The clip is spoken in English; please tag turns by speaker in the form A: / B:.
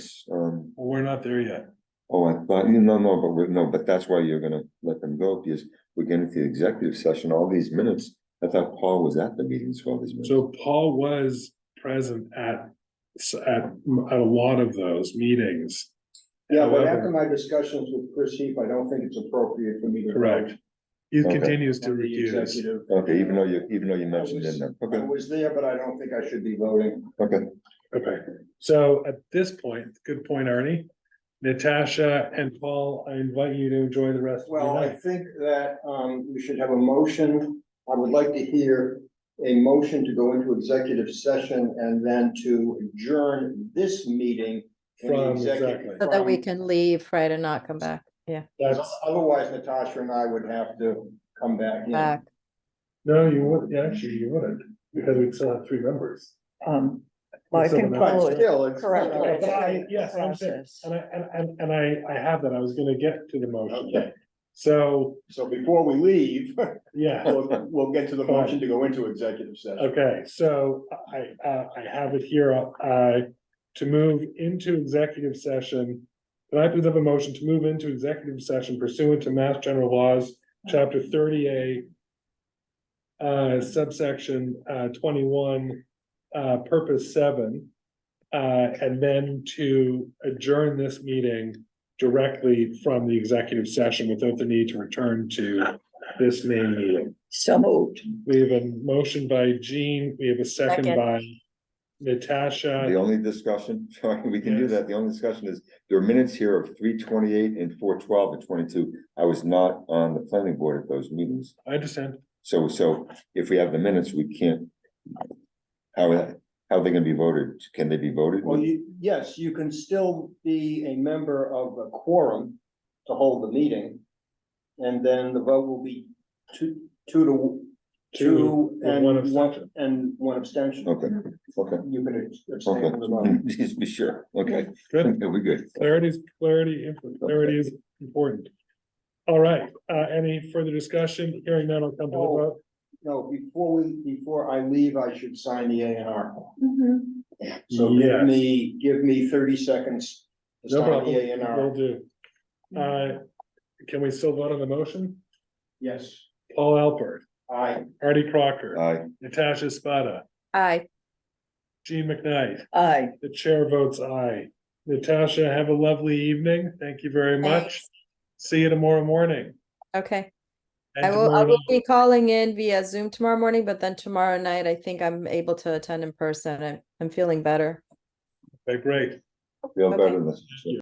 A: We're not there yet.
B: um, Oh, I thought, you no, no, but we're, no, but that's why you're gonna let them go, because we're getting to the executive session, all these minutes. I thought Paul was at the meetings for all these minutes.
A: So Paul was present at, s- at, at a lot of those meetings.
C: Yeah, but
A: However-
C: after my discussions with Chris Heap, I don't think it's appropriate for me to.
A: Correct. He
B: Okay.
A: continues to
C: On the
A: recuse.
C: executive.
B: Okay, even though you, even though you mentioned in them,
C: I
B: okay,
C: was there, but I don't think I should be voting.
B: okay,
A: Okay, so at this point, good point, Arnie. Natasha and Paul, I invite you to enjoy the rest of your
C: Well, I
A: night.
C: think that um we should have a motion. I would like to hear a motion to go into executive session and then to adjourn this meeting. in the
A: From,
C: executive-
A: exactly.
D: So that we
C: from-
D: can leave, right, and not come back, yeah,
A: That's,
C: Otherwise Natasha and I would have to come back in.
D: back.
A: no, you would, yeah, actually, you wouldn't, because we still have three members.
E: Um, well, I
A: Some
E: think
A: of
C: But
E: Paul is
C: still, it's.
E: correct.
C: Okay.
A: But I- Yes, I'm saying,
E: Process.
A: and I, and, and, and I, I have that, I was gonna get to the motion. So,
C: So before we leave,
A: yeah.
C: we'll, we'll get to the motion to go into executive session.
A: Okay, so I, uh, I have it here, uh, to move into executive session. Can I please have a motion to move into executive session pursuant to Mass General Laws, Chapter thirty A. Uh, subsection, uh, twenty-one, uh, purpose seven. Uh, and then to adjourn this meeting directly from the executive session without the need to return to this main meeting.
E: so moved.
A: We have a motion by Jean, we have a second
D: Second.
A: by
B: the
A: Natasha.
B: only discussion, sorry, we can do
A: Yes.
B: that, the only discussion is, there are minutes here of three twenty-eight and four twelve and twenty-two. I was not on the planning board at those meetings,
A: I understand.
B: so, so if we have the minutes, we can't. How, how are they gonna be voted, can they be voted?
C: Well, you, yes, you can still be a member of a quorum to hold the meeting. And then the vote will be two, two to, two
A: with
C: and
A: one
C: one,
A: abstention.
C: and one abstention.
B: Okay, okay.
C: You can abstain
B: Okay,
C: from the vote.
B: just be sure, okay,
A: Good.
B: we're good.
A: Clarity is, clarity, inf- clarity is important. All right, uh, any further discussion? Hearing none, I'll come to the
C: Oh.
A: vote.
C: No, before we, before I leave, I should sign the A and R.
E: Mm-hmm.
C: So
A: Yes.
C: give me, give me thirty seconds to
A: No
C: sign
A: problem,
C: the A and
A: will
C: R.
A: do. Uh, can we still vote on the motion?
C: Yes,
A: Paul Alpert,
C: I,
A: Artie Crocker,
B: Aye.
A: Natasha Spada,
D: Aye,
A: Jean McKnight.
E: Aye.
A: The chair votes aye. Natasha, have a lovely evening. Thank you very much.
D: Thanks.
A: See you tomorrow morning.
D: okay.
A: and
D: I will, I
A: tomorrow
D: will
A: night.
D: be calling in via Zoom tomorrow morning, but then tomorrow night, I think I'm able to attend in person. I'm, I'm feeling better.
A: Okay, great.
B: Feel
D: Okay.
B: better than this.